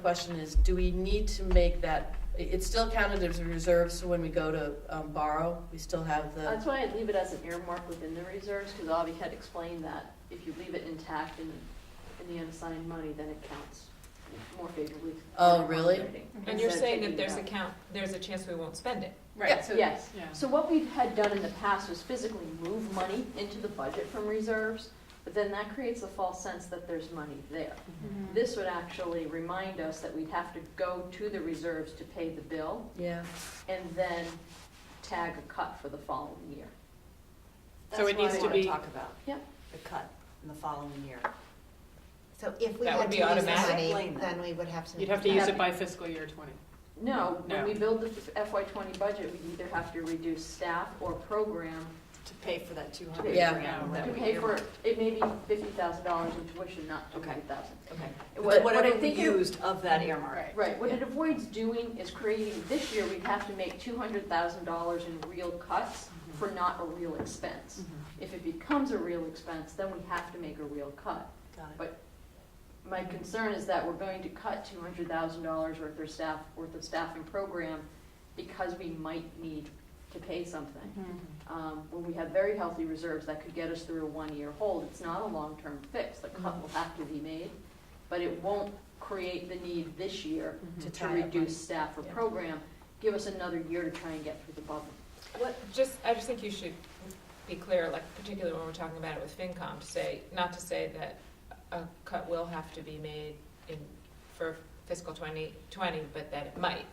question is, do we need to make that, it- it's still counted as a reserve, so when we go to um, borrow, we still have the, That's why I'd leave it as an earmark within the reserves, because Avi had explained that if you leave it intact in, in the unassigned money, then it counts more favorably. Oh, really? And you're Instead of saying taking that it there's out. a count, there's a chance we won't spend it. Yeah. Right, so. Yes. yeah. So what we had done in the past was physically move money into the budget from reserves, but then that creates a false sense that there's money there. Mm-hmm. This would actually remind us that we'd have to go to the reserves to pay the bill yeah. and then tag a cut for the following year. So it needs to be- Talk about Yeah. the cut in the following year. So if we That would had be to use the automatic. money, Explain that. then we would have to. You'd have to use it by fiscal year twenty. No, when No. we build the FY twenty budget, we either have to reduce staff or program To pay for that two to pay hundred. Yeah. for, That to pay for, it may be fifty thousand dollars in tuition, not two hundred thousand. Okay. What- But what I Whatever we think you- used of that earmark. Right. Right, what it avoids doing is creating, this year, we'd have to make two hundred thousand dollars in real cuts Mm-hmm. for not a real expense. If it becomes a real expense, then we have to make a real cut. Got it. But my concern is that we're going to cut two hundred thousand dollars worth of staff, worth of staffing program because we might need to pay something. Um, when we have very healthy reserves, that could get us through a one-year hold. It's not a long-term fix. The cut will have to be made, but it won't create the need this year Mhm. to To tie up money. reduce staff or Yeah. program. Give us another year to try and get through the bubble. What, just, I just think you should be clear, like particularly when we're talking about it with FinCom, to say, not to say that a cut will have to be made in, for fiscal twenty twenty, but that it might,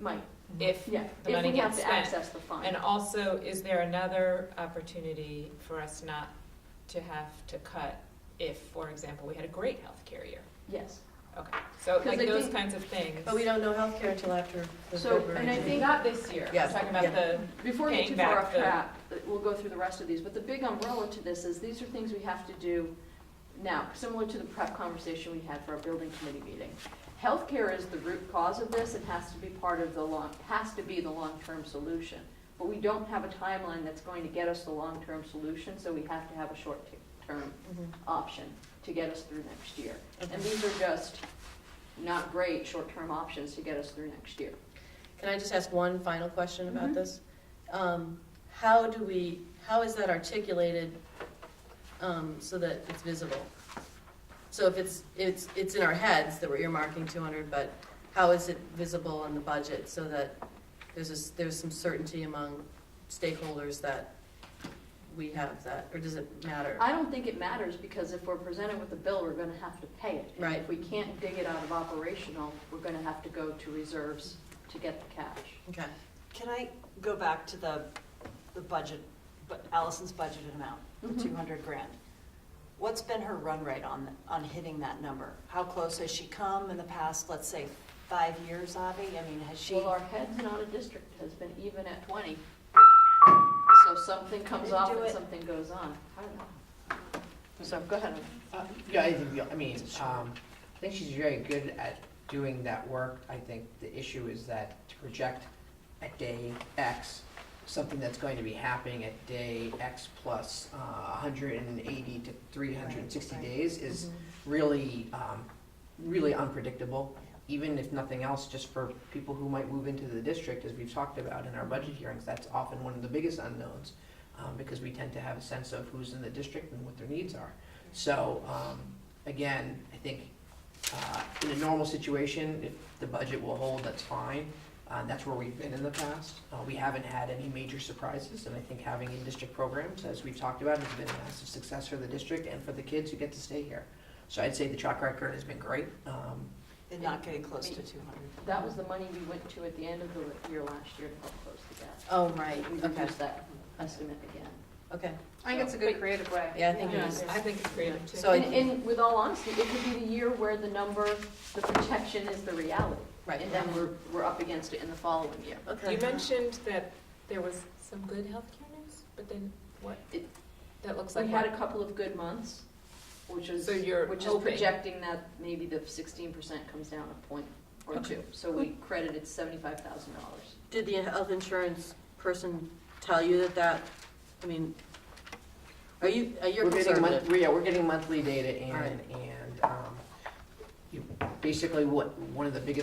Might, if yeah, The if money we have gets to spent. access the fund. And also, is there another opportunity for us not to have to cut if, for example, we had a great healthcare year? Yes. Okay, so 'Cause like I those think- kinds of things. But we don't know healthcare until after the So, February. and I meeting. think- Not this year, Yeah, I'm talking about the, Before we get paying too far back off the- track, we'll go through the rest of these, but the big umbrella to this is, these are things we have to do now, similar to the prep conversation we had for our building committee meeting. Healthcare is the root cause of this, it has to be part of the long, has to be the long-term solution. But we don't have a timeline that's going to get us the long-term solution, so we have to have a short-term Mhm. option to get us through next year. Okay. And these are just not great short-term options to get us through next year. Can I just ask one final question about Mm-hmm. Mhm. this? Um, How do we, how is that articulated um, so that it's visible? So if it's, it's, it's in our heads that we're earmarking 200, but how is it visible on the budget so that there's, a s- there's some certainty among stakeholders that we have that, or does it matter? I don't think it matters, because if we're presented with a bill, we're gonna have to pay it. And Right. If we can't dig it out of operational, we're gonna have to go to reserves to get the cash. Okay. Can I go back to the, the budget, but Allison's budgeted amount, Mhm. Mm-hmm. the two hundred grand? What's been her run rate on, on hitting that number? How close has she come in the past, let's say, five years, Avi? I mean, has she? Well, our heads and audit district has been even at twenty. So something comes Didn't off do and it. something goes on. I don't know. So go ahead. Uh, Yeah, I think, I mean, um, I think she's very good at doing that work. I think the issue is that to project at day X, something that's going to be happening at day X plus uh, 180 to 360 Right, right. days is Mm-hmm. really, um, really unpredictable. Even if nothing else, just for people who might move into the district, as we've talked about in our budget hearings, that's often one of the biggest unknowns um, because we tend to have a sense of who's in the district and what their needs are. So, um, again, I think, uh, in a normal situation, if the budget will hold, that's fine. Uh, that's where we've been in the past. Uh, we haven't had any major surprises, and I think having in-district programs, as we've talked about, has been a massive success for the district and for the kids who get to stay here. So I'd say the track record has been great. Um, They're not getting close to two hundred. That was the money we went to at the end of the year last year to help close the gap. Oh, right, We okay, reduced that estimate again. okay. I think it's a good creative way. Yeah, I think it Yeah. is. I think it's creative too. So I- And, and with all honesty, it could be the year where the number, the protection is the reality. Right. And then we're, we're up against it in the following year. Okay. You mentioned that there was some good healthcare news, but then what? It- That looks We like had what? a couple of good months, which is, So you're which is hoping. projecting that maybe the sixteen percent comes down a point or Okay. two. So we credited seventy-five thousand dollars. Did the health insurance person tell you that that, I mean, are you, are you We're getting conservative? month- Yeah, we're getting monthly data All and, right. and, um, you- basically what, one of the biggest